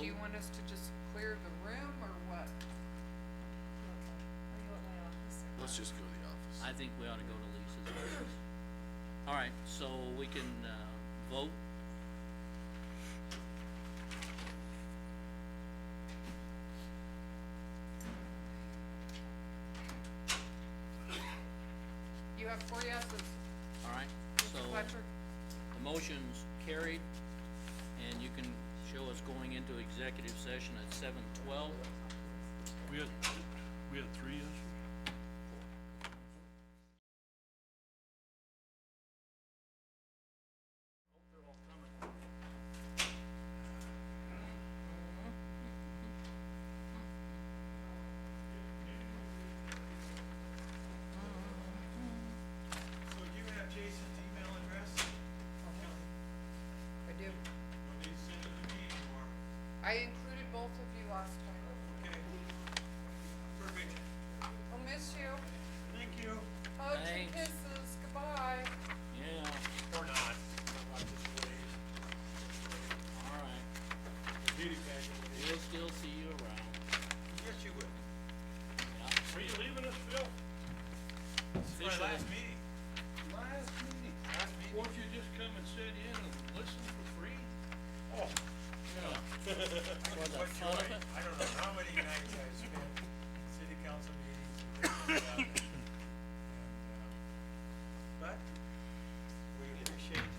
do you want us to just clear the room or what? Are you at my office or? Let's just go to the office. I think we ought to go to Lisa's first. All right, so we can, uh, vote. You have four yeses, All right, so Mr. Fletcher? the motion's carried, and you can show us going into executive session at seven twelve. We had, we had three issues. So do you have Jason's email address? Kelly, I do. or do you send it to me or, I included both of you last time. okay? Perfect. I'll miss you. Thank you. Hugs and Thanks. kisses, goodbye. Yeah, Or not. I just waved. all right, Beauty pageant. we'll still see you around. Yes, you would. Are you leaving us, Phil? This is Officially. my last meeting. Last meeting. Last meeting. Won't you just come and sit in and listen for free? Oh, For the what fun of joy. it, I don't know how many nights I spent in city council meetings. and things like that. And, uh, But we appreciate, If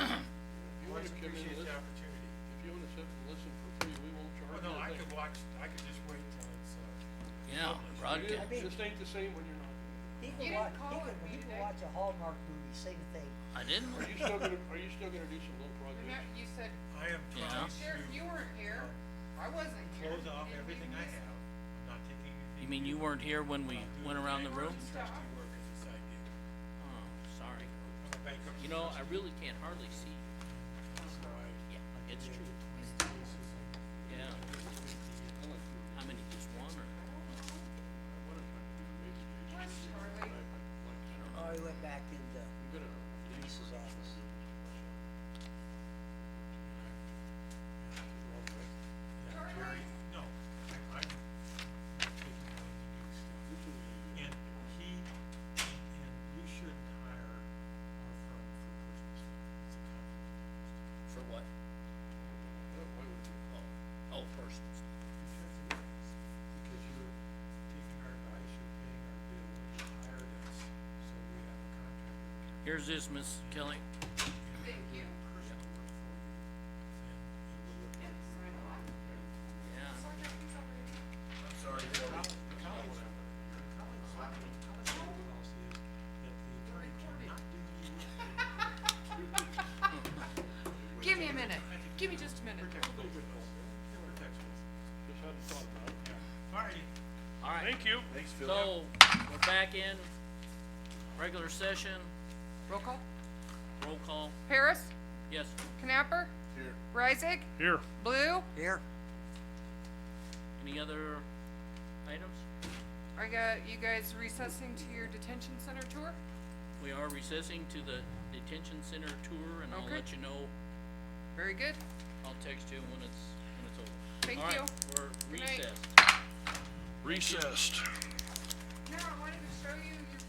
you we wanna come in and appreciate the listen- opportunity. If you wanna sit and listen for free, we won't charge Well, you no, a I thing. could watch, I could just wait till it's, uh, yeah, broadcast. It just ain't the same when you're not. there. He You didn't can watch, call he it can, me he can today. watch a Hallmark movie, same thing. I didn't, Are you still gonna, are you still gonna do some little Remember, projects? you said, I am Yeah. trying Sheriff, you to weren't here. I wasn't here. close off Did we everything I miss- have. I'm not taking anything. you mean you weren't here when we went around the room? Trustee work is a side gig. Oh, sorry. I'm a bankruptcy. You know, I trustee, really can't hardly see you. so I- Yeah, it's true. Yeah. How many, just one or? Where's Charlie? Oh, he went back into Lisa's office. Yeah, Jerry, no, I, I'm not taking anything to do stuff. And he, and, and you shouldn't hire our firm for Christmas. It's a conflict. For what? Oh, oh, persons. Because you're taking our advice, you're paying our bill, you hired us, so we have a contract. Here's this, Miss Kelly. Thank you. Personal work for you. And it will look good. Yeah. I'm sorry, Bill. The college, your college, college policy is that the attorney cannot do you. Give me a minute. Give me just a minute. It protects us. Just hadn't thought about it. All righty. All right. Thank you. Thanks, Phil. So, we're back in regular session, Roll call. roll call. Harris, Yes, Knapper, Here. Reisig, Here. Blue. Here. any other items? I got you guys recessing to your detention center tour. We are recessing to the detention center tour and I'll Okay. let you know, Very good. I'll text you when it's, when it's over. Thank All right, you. We're Good night. recessed. Recessed. No, I wanted to show you your